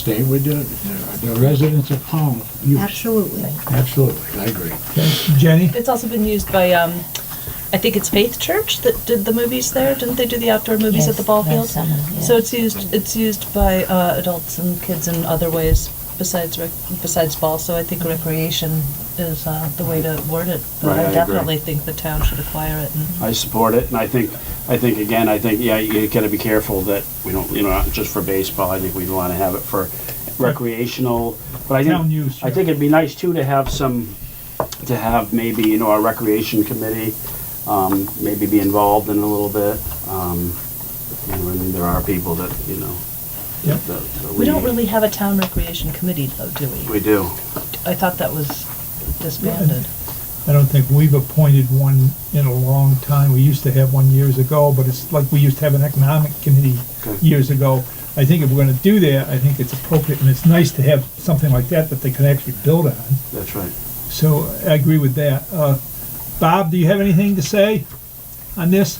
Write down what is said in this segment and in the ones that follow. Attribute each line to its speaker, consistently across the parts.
Speaker 1: stay with the, the residents of Powell. use.
Speaker 2: Absolutely.
Speaker 1: Absolutely, I agree.
Speaker 3: Jenny?
Speaker 4: It's also been used by, um, I think it's Faith Church that did the movies there. Didn't they do the outdoor movies at the ball field?
Speaker 5: Yes, last summer, yeah.
Speaker 4: So it's used. It's used by uh, adults and kids in other ways besides rec- besides ball. So I think recreation is uh, the way to word it. But
Speaker 6: Right, I
Speaker 4: I
Speaker 6: agree.
Speaker 4: definitely think the town should acquire it. And
Speaker 6: I support it, and I think, I think again, I think, yeah, you gotta be careful that we don't, you know, not just for baseball, I think we'd wanna have it for recreational, but I
Speaker 3: Town use,
Speaker 6: think, I
Speaker 3: yeah.
Speaker 6: think it'd be nice too to have some, to have maybe, you know, our recreation committee, um, maybe be involved in a little bit. Um, you know, I mean, there are people that, you know,
Speaker 3: Yep.
Speaker 6: that. that
Speaker 4: we don't really have a town recreation committee, though, do we?
Speaker 6: We do.
Speaker 4: I thought that was disbanded.
Speaker 3: I don't think we've appointed one in a long time. We used to have one years ago, but it's like we used to have an economic committee
Speaker 6: Okay.
Speaker 3: years ago. I think if we're gonna do that, I think it's appropriate, and it's nice to have something like that that they can actually build on.
Speaker 6: That's right.
Speaker 3: So I agree with that. Uh, Bob, do you have anything to say on this?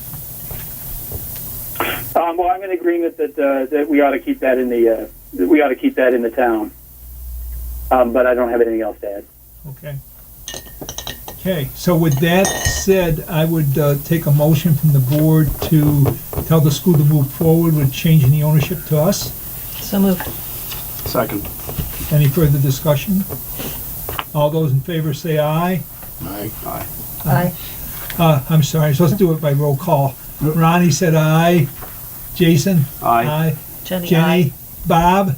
Speaker 7: Um, well, I'm in agreement that uh, that we ought to keep that in the uh, that we ought to keep that in the town. Um, but I don't have anything else to add.
Speaker 3: Okay. Okay, so with that said, I would uh, take a motion from the board to tell the school to move forward with changing the ownership to us.
Speaker 4: So moved.
Speaker 6: Second.
Speaker 3: Any further discussion? All those in favor say aye.
Speaker 1: I,
Speaker 6: Aye.
Speaker 4: Aye.
Speaker 3: Uh, I'm sorry, so let's do it by roll call. Ronnie said aye. Jason?
Speaker 6: Aye.
Speaker 4: Jenny.
Speaker 3: Jenny? Bob?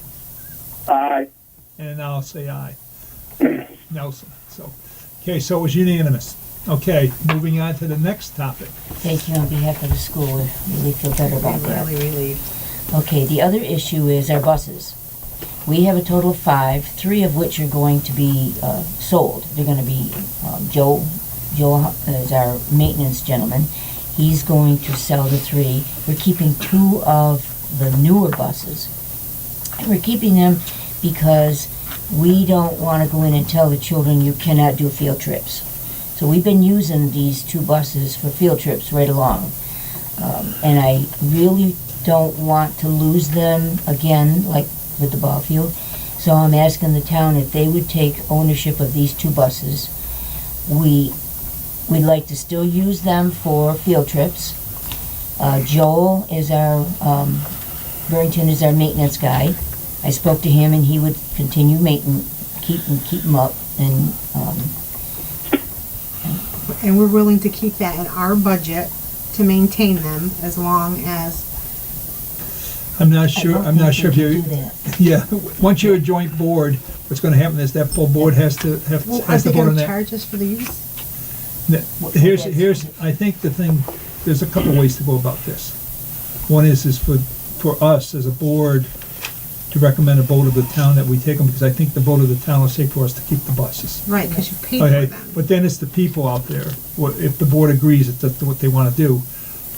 Speaker 7: Aye.
Speaker 3: And I'll say aye. Nelson, so, okay, so it was unanimous. Okay, moving on to the next topic.
Speaker 5: Thank you on behalf of the school. We really feel better about that.
Speaker 4: Really relieved.
Speaker 5: Okay, the other issue is our buses. We have a total of five, three of which are going to be uh, sold. They're going to be um, Joe. Joe uh, is our maintenance gentleman. He's going to sell the three. We're keeping two of the newer buses. And we're keeping them because we don't want to go in and tell the children you cannot do field trips. So we've been using these two buses for field trips right along. Um, and I really don't want to lose them again, like with the ball field. So I'm asking the town if they would take ownership of these two buses. We, we'd like to still use them for field trips. Uh, Joel is our, um, Burrington is our maintenance guy. I spoke to him and he would continue maintenance, keep, and keep them up and, um,
Speaker 2: And we're willing to keep that in our budget to maintain them as long as,
Speaker 3: I'm not
Speaker 5: I
Speaker 3: sure,
Speaker 5: don't
Speaker 3: I'm not
Speaker 5: think
Speaker 3: sure
Speaker 5: we
Speaker 3: if
Speaker 5: can
Speaker 3: you,
Speaker 5: do that.
Speaker 3: yeah, once you're a joint board, what's gonna happen is that full board has to, have-
Speaker 2: well, are
Speaker 3: has to
Speaker 2: they
Speaker 3: vote on
Speaker 2: gonna
Speaker 3: that.
Speaker 2: charge us for the use?
Speaker 3: Here's, here's, I think the thing, there's a couple ways to go about this. One is, is for, for us as a board to recommend a vote of the town that we take them, because I think the vote of the town will say for us to keep the buses.
Speaker 2: Right, because you paid for
Speaker 3: Okay,
Speaker 2: them.
Speaker 3: but then it's the people out there, what, if the board agrees that that's what they wanna do.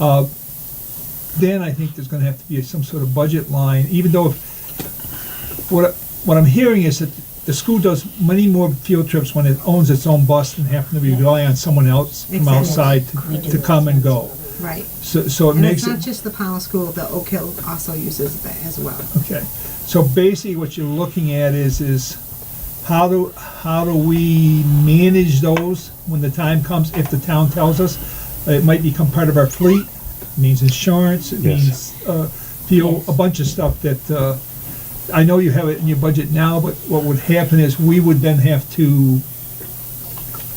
Speaker 3: Uh, Then I think there's gonna have to be some sort of budget line, even though, if- what, I- what I'm hearing is that the school does many more field trips when it owns its own bus than having to rely on someone else from
Speaker 2: Exactly.
Speaker 3: outside to- to come and go.
Speaker 2: Right.
Speaker 3: So, so it
Speaker 2: And it's
Speaker 3: makes
Speaker 2: not
Speaker 3: it,
Speaker 2: just the Powell School, the Oak Hill also uses that as well.
Speaker 3: okay. So basically what you're looking at is, is how do, how do we manage those when the time comes, if the town tells us? It might become part of our fleet, It means insurance, it means, uh, fuel, a bunch of stuff that, uh, I know you have it in your budget now, but what would happen is we would then have to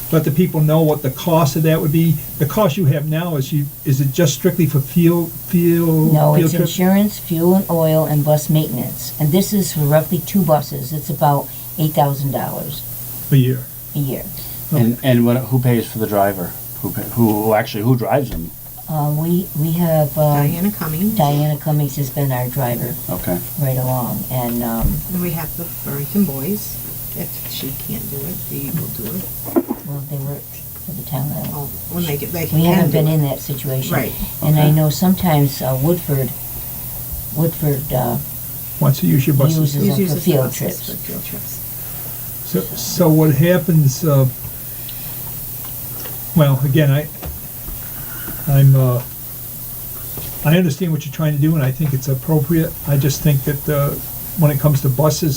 Speaker 3: let the people know what the cost of that would be. The cost you have now is you, is it just strictly for fuel, fuel?
Speaker 5: No,
Speaker 3: field
Speaker 5: it's
Speaker 3: trip?
Speaker 5: insurance, fuel and oil, and bus maintenance. And this is for roughly two buses. It's about eight thousand dollars
Speaker 3: A year.
Speaker 5: a year.
Speaker 6: And, and what, who pays for the driver? Who, pay- who, who actually, who drives them?
Speaker 5: Uh, we, we have, um,
Speaker 2: Diana Cummings,
Speaker 5: Diana Cummings has been our driver
Speaker 6: Okay.
Speaker 5: right along, and, um,
Speaker 2: and we have the Burrington Boys. If she can't do it, they will do it.
Speaker 5: well, they work for the town. uh,
Speaker 2: Oh, When they get, they can do
Speaker 5: We
Speaker 2: it.
Speaker 5: haven't been in that situation.
Speaker 2: Right.
Speaker 5: And I know sometimes uh, Woodford, Woodford, uh,
Speaker 3: Once you use your buses.
Speaker 5: Uses. For
Speaker 2: Uses the
Speaker 5: field
Speaker 2: buses
Speaker 5: trips.
Speaker 2: For field trips.
Speaker 3: So, so what happens, uh, well, again, I, I'm, uh, I understand what you're trying to do and I think it's appropriate. I just think that, uh, when it comes to buses,